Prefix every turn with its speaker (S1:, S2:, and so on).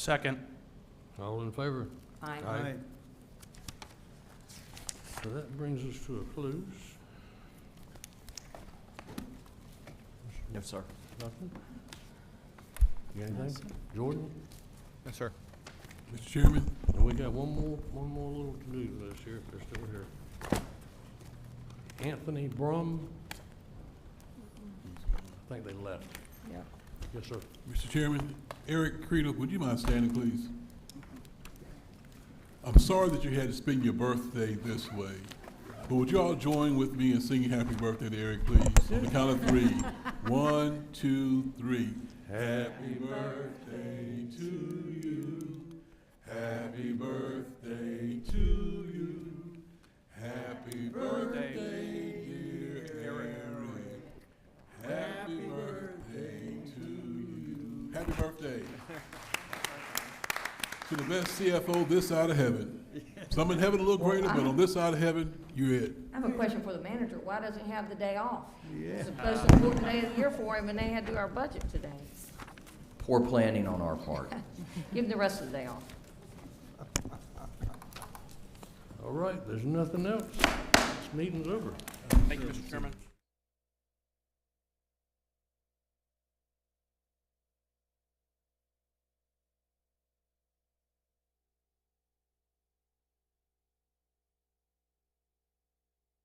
S1: Second.
S2: All in favor?
S3: Aye.
S2: Aye. So that brings us to a close.
S4: No, sir.
S2: Nothing? You got anything? Jordan?
S4: Yes, sir.
S5: Mr. Chairman,
S2: And we got one more, one more little to-do list here, if they're still here. Anthony Brum? I think they left.
S3: Yeah.
S2: Yes, sir.
S5: Mr. Chairman, Eric Credo, would you mind standing, please? I'm sorry that you had to spend your birthday this way, but would you all join with me in singing happy birthday to Eric, please? On the count of three. One, two, three. Happy birthday to you. Happy birthday to you. Happy birthday, dear Eric. Happy birthday to you. Happy birthday. To the best CFO this side of heaven. Some in heaven a little greater, but on this side of heaven, you're it.
S3: I have a question for the manager. Why doesn't he have the day off? It's the most important day of the year for him, and they had to do our budget today.
S4: Poor planning on our part.
S3: Give him the rest of the day off.
S2: All right, there's nothing else. This meeting's over.
S1: Thank you, Mr. Chairman.